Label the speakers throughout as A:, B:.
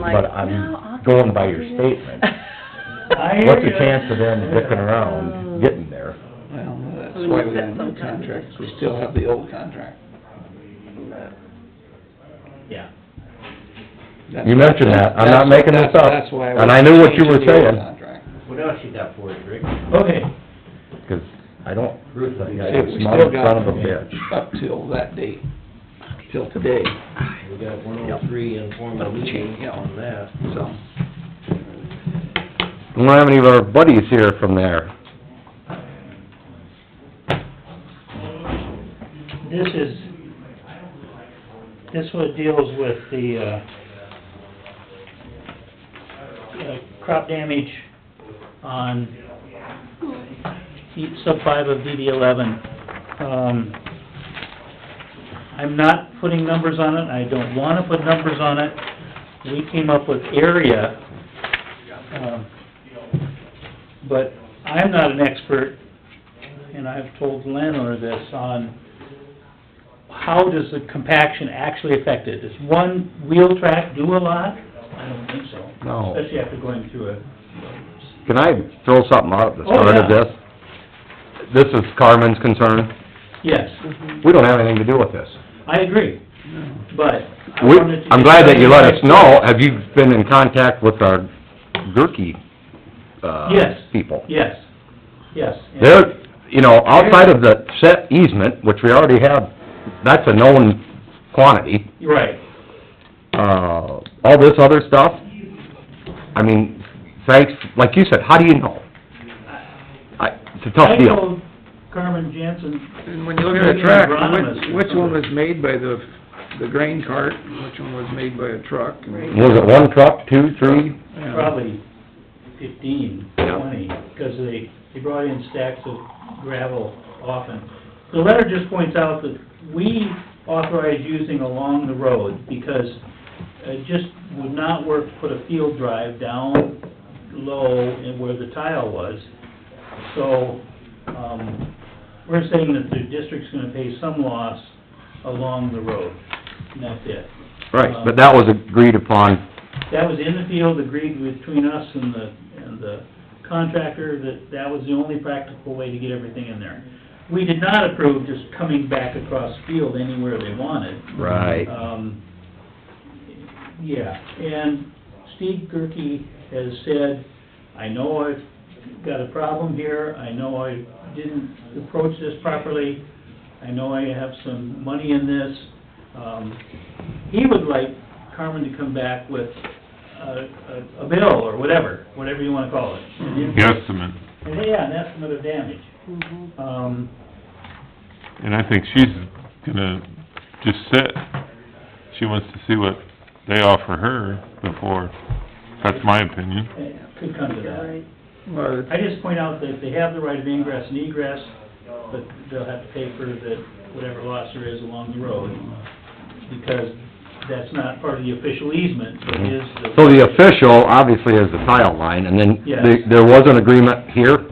A: like,
B: but
A: "No, I'll
B: I'm
A: get
B: going by your
A: it."
B: statement.
C: I hear
B: What's the
C: ya.
B: chance of them dicking around, getting there?
D: Well, that's
A: We
D: why
A: must
D: we
A: set
D: have
A: some
D: new
A: kind of
D: contracts, we still have the old contract.
C: Yeah.
D: That's-
B: You mentioned that, I'm not
D: that's-
B: making this
D: that's-
B: up,
D: That's why.
B: and I knew what you were
D: changing the old
B: saying.
D: contract.
E: What else you got for us, Rick?
C: Okay,
B: Because I don't,
E: Ruth,
B: that
E: we
B: guy's
D: Shit,
B: a
D: we
B: smart
D: still got-
B: son of a bitch.
D: Up till that date, till today,
E: we got one oh three informal meeting on that.
D: so.
B: We don't have any of our buddies here from there.
C: this is, this one deals with the, uh, uh, crop damage on E- sub five of DD eleven. Um, I'm not putting numbers on it, I don't wanna put numbers on it. We came up with area, um, but I'm not an expert, and I've told the landowner this, on how does the compaction actually affect it? Does one wheel track do a lot? I don't think so.
B: No.
C: Especially after going through a
B: Can I throw something out at the
C: Oh,
B: start of
C: yeah.
B: this? This is Carmen's concern.
C: Yes,
B: We don't have anything to do with this.
C: I agree, but I
B: We,
C: wanted to...
B: I'm glad that you let us know. Have you been in contact with our Gerke, uh,
C: Yes.
B: people?
C: Yes, yes. and-
B: They're, you know, outside of the set easement, which we already have, that's a known quantity.
C: You're Right,
B: Uh, all this other stuff, I mean, thanks, like you said, how do you know? I, it's a tough
C: I
B: deal.
C: told Carmen Jansen,
D: And when you look at a track, which, which one was made by the, the grain cart, and which one was made by a truck? and-
B: Was it one truck, two, three?
D: Yeah.
C: probably fifteen, twenty, because they, they brought in stacks of gravel often. The letter just points out that we authorize using along the road, because it just would not work to put a field drive down low and where the tile was. So, um, we're saying that the district's gonna pay some loss along the road, and that's it. Uh,
B: Right, but that was agreed upon,
C: That was in the field, agreed between us and the, and the contractor, that that was the only practical way to get everything in there. We did not approve just coming back across field anywhere they wanted.
B: right,
C: Um, yeah, and Steve Gerke has said, I know I've got a problem here, I know I didn't approach this properly, I know I have some money in this. Um, he would like Carmen to come back with a, a, a bill or whatever, whatever you wanna call it. An in-
F: guesstimate,
C: Yeah, an estimate of damage. Um,
F: and I think she's gonna just sit. She wants to see what they offer her before, that's my opinion.
C: it eh, could come to that.
D: Well, it's-
C: I just point out that they have the right of ingress and egress, but they'll have to pay for the, whatever loss there is along the road, because that's not part of the official easement, but
B: Mhm.
C: is the...
B: Mm-hmm. So the official, obviously, is the tile line, and then
C: Yes.
B: the- there was an agreement here,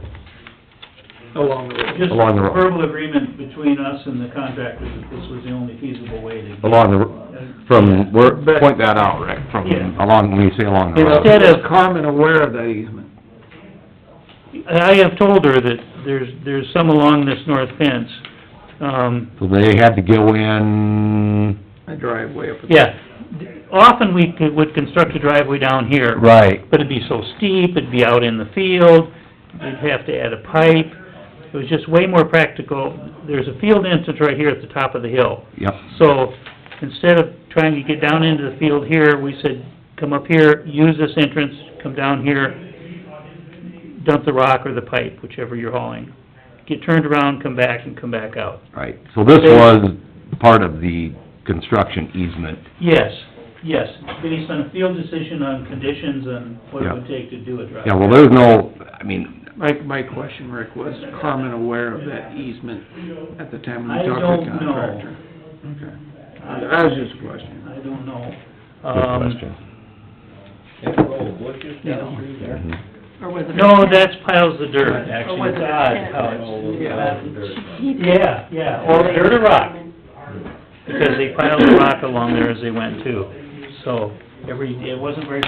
D: along the road.
C: Just
B: along the road.
C: verbal agreement between us and the contractor that this was the only feasible way to... get-
B: along the, from, where, point that out, Rick, from,
C: Yeah.
B: along, when you say along the road.
C: Instead of-
D: Is Carmen aware of that easement?
C: I have told her that there's, there's some along this north fence, um,
B: So they had to go in,
D: A driveway up at the
C: yeah. Often we could- would construct a driveway down here,
B: right,
C: But it'd be so steep, it'd be out in the field, you'd have to add a pipe. It was just way more practical. There's a field entrance right here at the top of the hill.
B: yep,
C: So instead of trying to get down into the field here, we said, come up here, use this entrance, come down here, dump the rock or the pipe, whichever you're hauling. Get turned around, come back, and come back out.
B: right. So this was part of the construction easement.
C: Yes, yes, based on a field decision on conditions and what it
B: Yeah.
C: would take to do a drive.
B: Yeah, well, there's no, I mean,
D: My, my question, Rick, was Carmen aware of that easement at the time when
C: I
D: you talked to
C: don't
D: the
C: know.
D: contractor? Okay. That was just a question.
C: I don't know.
B: good
C: Um,
B: question.
E: That row of bushes down through there?
B: Mhm.
A: Or was it?
C: No, that's piles of dirt,
A: Or
C: actually,
A: was
C: it's
A: it a
C: odd
A: tent?
C: how
D: Yeah.
C: it's...
A: He did.
C: Yeah, yeah, or dirt or rock, because they piled the rock along there as they went too. So, every, it wasn't very